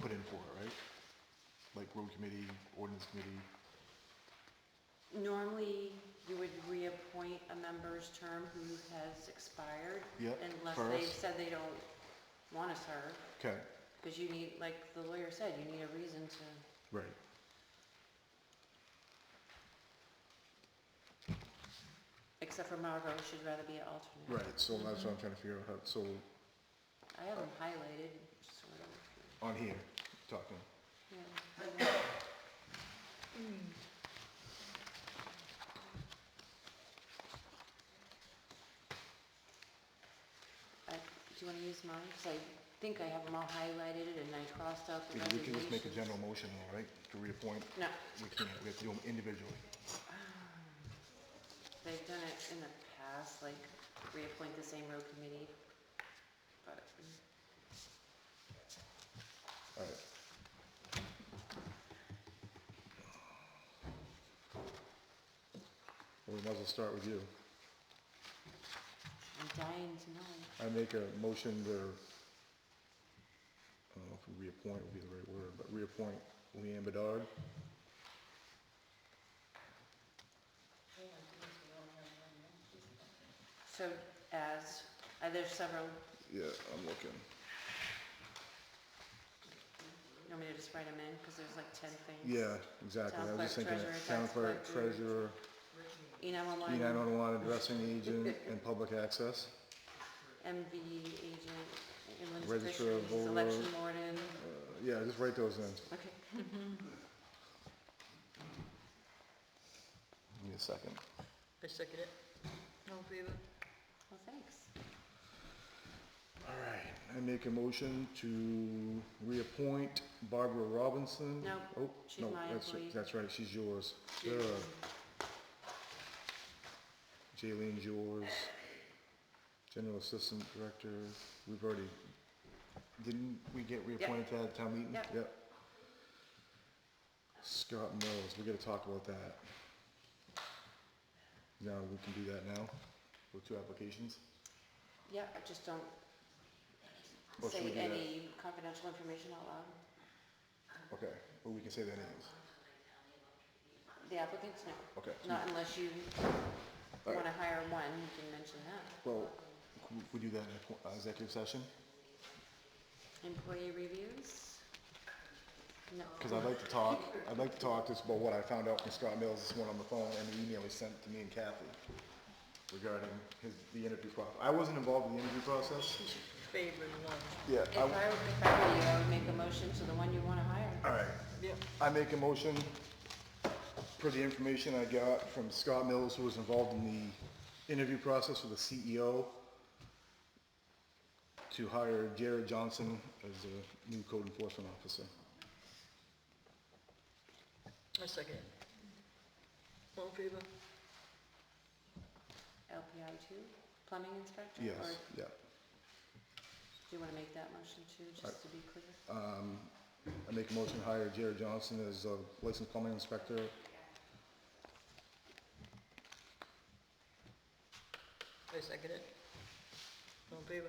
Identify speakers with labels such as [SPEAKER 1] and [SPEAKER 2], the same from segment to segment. [SPEAKER 1] put in for it, right? Like road committee, ordinance committee,
[SPEAKER 2] Normally, you would reappoint a member's term who has expired.
[SPEAKER 1] Yep,
[SPEAKER 2] Unless they've
[SPEAKER 1] first.
[SPEAKER 2] said they don't want to serve,
[SPEAKER 1] okay,
[SPEAKER 2] because you need, like the lawyer said, you need a reason to,
[SPEAKER 1] right.
[SPEAKER 2] except for Margot, she'd rather be an alternate.
[SPEAKER 1] Right, so that's what I'm trying to figure out, how- so,
[SPEAKER 2] I have them highlighted, sort of,
[SPEAKER 1] on here, talking,
[SPEAKER 2] yeah. I, do you want to use mine? Because I think I have them all highlighted and I crossed out the
[SPEAKER 1] Yeah, we can just make a
[SPEAKER 2] resignations.
[SPEAKER 1] general motion, all right, to reappoint,
[SPEAKER 2] No,
[SPEAKER 1] we can't, we have to do them individually.
[SPEAKER 2] they've done it in the past, like reappoint the same road committee, but
[SPEAKER 1] All right. Well, we might as well start with you.
[SPEAKER 2] I'm dying to know.
[SPEAKER 1] I make a motion to, I don't know if reappoint would be the right word, but reappoint Leanne Bedard.
[SPEAKER 2] So as, uh, there's several,
[SPEAKER 1] Yeah, I'm looking.
[SPEAKER 2] you want me to just write them in? Because there's like 10 things.
[SPEAKER 1] Yeah, exactly. I
[SPEAKER 2] Town
[SPEAKER 1] was just
[SPEAKER 2] clerk,
[SPEAKER 1] thinking,
[SPEAKER 2] treasurer,
[SPEAKER 1] that. town
[SPEAKER 2] tax
[SPEAKER 1] clerk,
[SPEAKER 2] collector.
[SPEAKER 1] treasurer,
[SPEAKER 2] E nine one
[SPEAKER 1] E
[SPEAKER 2] one,
[SPEAKER 1] nine one one addressing agent, and public access.
[SPEAKER 2] MV agent, inland
[SPEAKER 1] Registrar of
[SPEAKER 2] fisheries,
[SPEAKER 1] Volo.
[SPEAKER 2] election warden,
[SPEAKER 1] Uh, Yeah, just write those in.
[SPEAKER 2] okay.
[SPEAKER 1] Give me a second.
[SPEAKER 3] I second it. All in favor?
[SPEAKER 2] Well, thanks.
[SPEAKER 1] All right, I make a motion to reappoint Barbara Robinson.
[SPEAKER 2] No,
[SPEAKER 1] Oh,
[SPEAKER 2] she's
[SPEAKER 1] no,
[SPEAKER 2] my
[SPEAKER 1] that's-
[SPEAKER 2] employee.
[SPEAKER 1] That's right, she's yours.
[SPEAKER 3] She's-
[SPEAKER 1] Ugh. Jaylene's yours. General Assistant Director, we've already, didn't we get reappointed to that town meeting?
[SPEAKER 2] Yep.
[SPEAKER 1] Scott Mills, we gotta talk about that. Now, we can do that now, with two applications?
[SPEAKER 2] Yeah, I just don't
[SPEAKER 1] Or should we do
[SPEAKER 2] say
[SPEAKER 1] that?
[SPEAKER 2] any confidential information out loud. Uh-huh.
[SPEAKER 1] Okay, well, we can say their names,
[SPEAKER 2] The applicants, no.
[SPEAKER 1] okay.
[SPEAKER 2] Not unless you
[SPEAKER 1] All right.
[SPEAKER 2] want to hire one, you can mention that.
[SPEAKER 1] Well, can we- we do that in a- uh, executive session,
[SPEAKER 2] Employee reviews? No.
[SPEAKER 1] because I'd like to talk, I'd like to talk just about what I found out from Scott Mills this morning on the phone and the email he sent to me and Kathy regarding his, the interview process. I wasn't involved in the interview process.
[SPEAKER 3] Favorite one.
[SPEAKER 1] Yeah.
[SPEAKER 2] If I were,
[SPEAKER 1] I-
[SPEAKER 2] if I were you, I would make a motion to the one you want to hire.
[SPEAKER 1] All right,
[SPEAKER 3] Yep.
[SPEAKER 1] I make a motion for the information I got from Scott Mills, who was involved in the interview process for the CEO, to hire Jared Johnson as a new code enforcement officer.
[SPEAKER 3] I second it. All in favor?
[SPEAKER 2] LPI two, plumbing inspector?
[SPEAKER 1] Yes,
[SPEAKER 2] Or
[SPEAKER 1] yeah.
[SPEAKER 2] do you want to make that motion too, just to be clear?
[SPEAKER 1] I make a motion to hire Jared Johnson as a licensed plumbing inspector.
[SPEAKER 3] I second it. All in favor?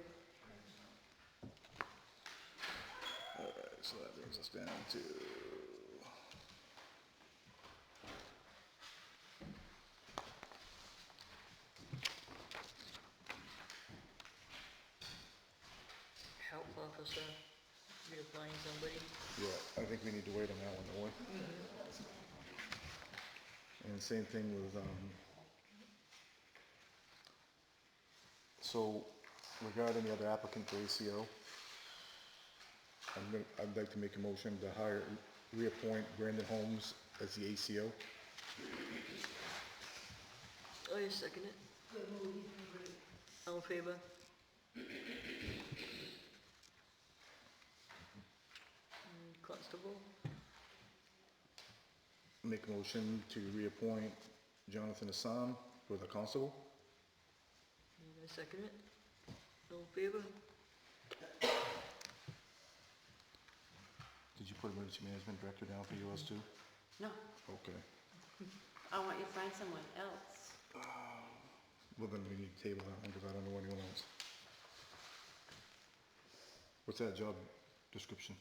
[SPEAKER 1] Alright, so that brings us down to.
[SPEAKER 3] Help officer, you're applying somebody.
[SPEAKER 1] Yeah, I think we need to wait on that one, don't we? And same thing with, um, so regarding the other applicant for ACO, I'm gonna, I'd like to make a motion to hire, reappoint Brandon Holmes as the ACO.
[SPEAKER 3] I Oh, second it. All in favor? Mm, Constable,
[SPEAKER 1] Make a motion to reappoint Jonathan Assam for the constable.
[SPEAKER 3] Mm, I second it. All in favor?
[SPEAKER 1] Did you put emergency management director down for yours too?
[SPEAKER 2] No,
[SPEAKER 1] Okay.
[SPEAKER 2] I want you to find someone else.
[SPEAKER 1] Well, then we need to table that one because I don't know anyone else. What's that job description?